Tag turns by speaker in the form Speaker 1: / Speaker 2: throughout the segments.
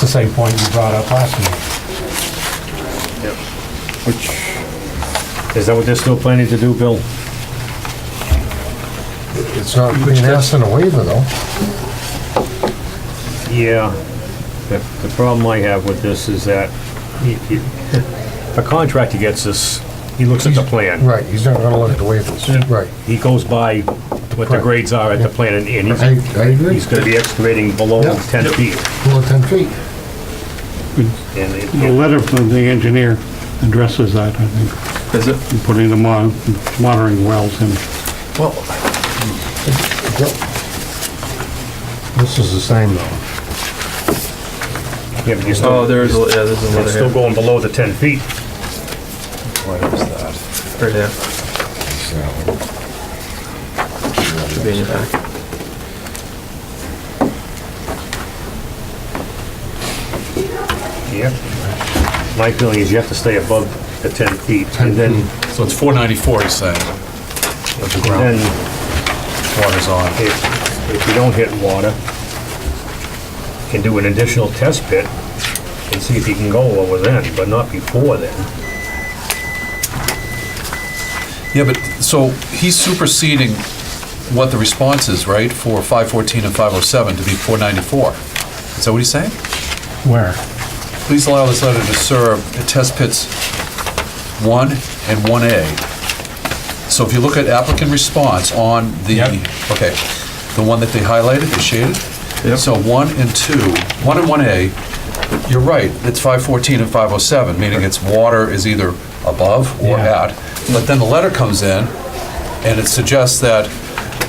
Speaker 1: the same point you brought up last meeting.
Speaker 2: Which, is that what they're still planning to do, Bill?
Speaker 3: It's not being asked in a waiver though.
Speaker 2: Yeah. The, the problem I have with this is that he- he- a contractor gets this, he looks at the plan.
Speaker 3: Right, he's not gonna look at the waivers, right.
Speaker 2: He goes by what the
Speaker 3: Correct.
Speaker 2: grades are at the plan and and
Speaker 3: I,
Speaker 2: he's,
Speaker 3: I agree.
Speaker 2: he's gonna be excavating below
Speaker 3: Yeah.
Speaker 2: ten feet.
Speaker 3: Well, ten feet.
Speaker 2: And it-
Speaker 4: The
Speaker 2: it-
Speaker 4: letter from the engineer addresses that, I think,
Speaker 5: Is it?
Speaker 4: in putting them on, monitoring wells and
Speaker 5: Well,
Speaker 3: This is the same though.
Speaker 2: yeah, but you're still-
Speaker 5: oh, there is, a- yeah, there's
Speaker 2: It's
Speaker 5: another
Speaker 2: still
Speaker 5: here.
Speaker 2: going below the ten feet.
Speaker 5: What is that? Right there. Should be in your back.
Speaker 2: Yeah. My feeling is you have to stay above the ten feet and then,
Speaker 6: So it's 494, he's saying, of the
Speaker 2: and
Speaker 6: ground
Speaker 2: then
Speaker 6: water's on.
Speaker 2: if, if you don't hit water, can do an additional test pit and see if you can go over then, but not before then.
Speaker 6: Yeah, but, so he's superseding what the response is, right, for 514 and 507 to be 494. Is that what he's saying?
Speaker 1: Where?
Speaker 6: Please allow this letter to serve at test pits 1 and 1A. So if you look at applicant response on the,
Speaker 1: Yep.
Speaker 6: okay, the one that they highlighted, they shaded?
Speaker 5: Yep.
Speaker 6: So 1 and 2, 1 and 1A, you're right, it's 514 and 507, meaning it's water is either above or
Speaker 1: Yeah.
Speaker 6: at. But then the letter comes in, and it suggests that,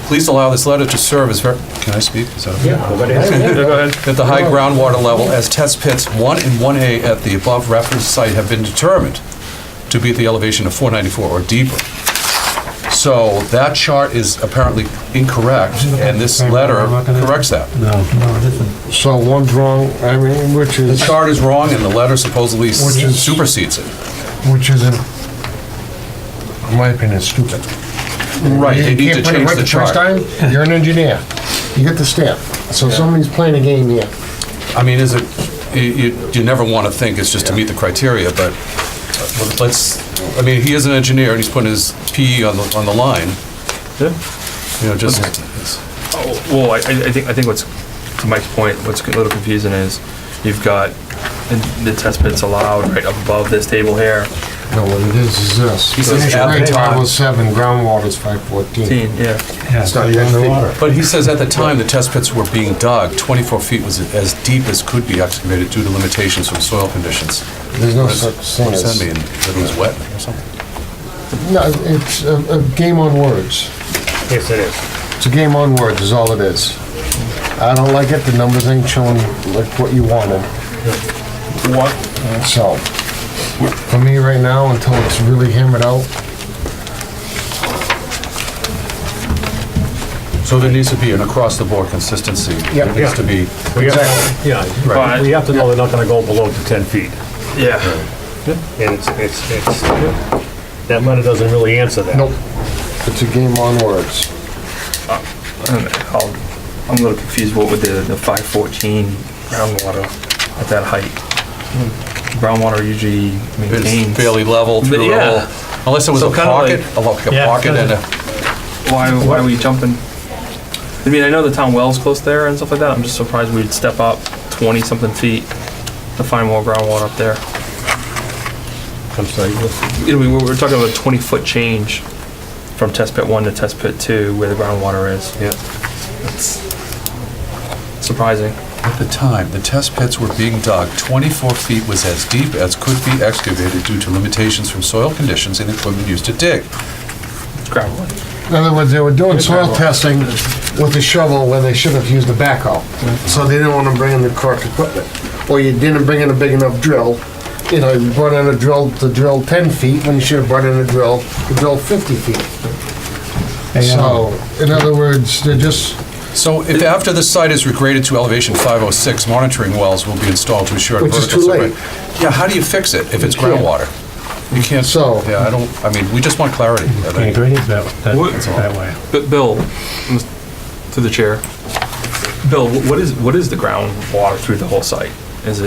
Speaker 6: please allow this letter to serve as, ver- can I speak? Is that okay? That the high groundwater level as test pits 1 and 1A at the above reference site have been determined to be at the elevation of 494 or deeper. So that chart is apparently incorrect, and this letter corrects that.
Speaker 1: No, it isn't.
Speaker 3: So one's wrong, I mean, which
Speaker 6: The
Speaker 3: is,
Speaker 6: chart is wrong, and the letter supposedly
Speaker 3: Which is-
Speaker 6: supersedes it.
Speaker 3: which is, in in my opinion, stupid.
Speaker 6: Right,
Speaker 3: You
Speaker 6: they need to
Speaker 3: can't put it right
Speaker 6: change the
Speaker 3: first
Speaker 6: chart.
Speaker 3: time, You're an engineer, you get the stamp, so somebody's playing a game here.
Speaker 6: I mean, is it, you- you, you never want to think it's just to meet the criteria, but uh, let's, I mean, he is an engineer, and he's putting his PE on the, on the line, you know, just,
Speaker 5: Oh, Well, I, I I think, I think what's, to Mike's point, what's a little confusing is you've got, and the test pit's allowed right up above this table here.
Speaker 3: No, what it is, is this.
Speaker 6: He says at the
Speaker 3: Grade
Speaker 6: time.
Speaker 3: 507, groundwater's 514.
Speaker 5: Yeah.
Speaker 1: Yeah,
Speaker 3: It's not even
Speaker 1: underwater.
Speaker 6: but he says at the time, the test pits were being dug, 24 feet was as deep as could be excavated due to limitations from soil conditions.
Speaker 3: There's no
Speaker 6: What does-
Speaker 3: such thing
Speaker 6: what does
Speaker 3: as,
Speaker 6: that mean? That it was wet or something?
Speaker 3: no, it's a, a game on words.
Speaker 2: Yes, it is.
Speaker 3: It's a game on words, is all it is. I don't like it, the numbers ain't showing like what you wanted,
Speaker 5: What,
Speaker 3: so. For me right now, until it's really hammered out,
Speaker 6: So there needs to be an across-the-board consistency.
Speaker 3: Yeah.
Speaker 6: There needs to be,
Speaker 2: We have, yeah,
Speaker 5: Right.
Speaker 2: we have to know they're not gonna go below the ten feet.
Speaker 5: yeah.
Speaker 2: And it's, it's, it's, that letter doesn't really answer that.
Speaker 3: nope, it's a game on words.
Speaker 5: I'm I'm a little confused what with the, the five fourteen groundwater at that height. Groundwater usually
Speaker 6: it's
Speaker 5: maintains.
Speaker 6: fairly level
Speaker 5: But
Speaker 6: through it
Speaker 5: yeah.
Speaker 6: all. Unless it was
Speaker 5: So
Speaker 6: a
Speaker 5: kinda
Speaker 6: pocket,
Speaker 5: like-
Speaker 6: a like a
Speaker 1: Yeah,
Speaker 6: pocket and a,
Speaker 5: Why, why are we jumping? I mean, I know the town well's close there and stuff like that, I'm just surprised we'd step up twenty-something feet to find more groundwater up there.
Speaker 2: I'm sorry.
Speaker 5: You know, we, we're talking about a twenty-foot change from test pit one to test pit two where the groundwater is.
Speaker 2: Yeah.
Speaker 5: It's surprising.
Speaker 6: at the time, the test pits were being dug, 24 feet was as deep as could be excavated due to limitations from soil conditions and equipment used to dig.
Speaker 5: It's groundwater.
Speaker 3: In other words, they were doing soil testing with a shovel when they should have used a backhoe. So they didn't want to bring in the correct equipment. Or you didn't bring in a big enough drill. You know, you brought in a drill to drill 10 feet when you should have brought in a drill to drill 50 feet. So, in other words, they're just,
Speaker 6: So if after the site is regraded to elevation 506, monitoring wells will be installed to ensure.
Speaker 3: Which is
Speaker 6: vertical
Speaker 3: too
Speaker 6: separation.
Speaker 3: late.
Speaker 6: Yeah, how do you fix it if it's
Speaker 3: can't.
Speaker 6: groundwater? You can't.
Speaker 3: So-
Speaker 6: Yeah, I don't, I mean, we just want clarity. I
Speaker 1: I
Speaker 6: think.
Speaker 1: agree with that, that-
Speaker 5: What-
Speaker 1: that way.
Speaker 5: But Bill, to the chair, Bill, wh- what is, what is the groundwater through the whole site?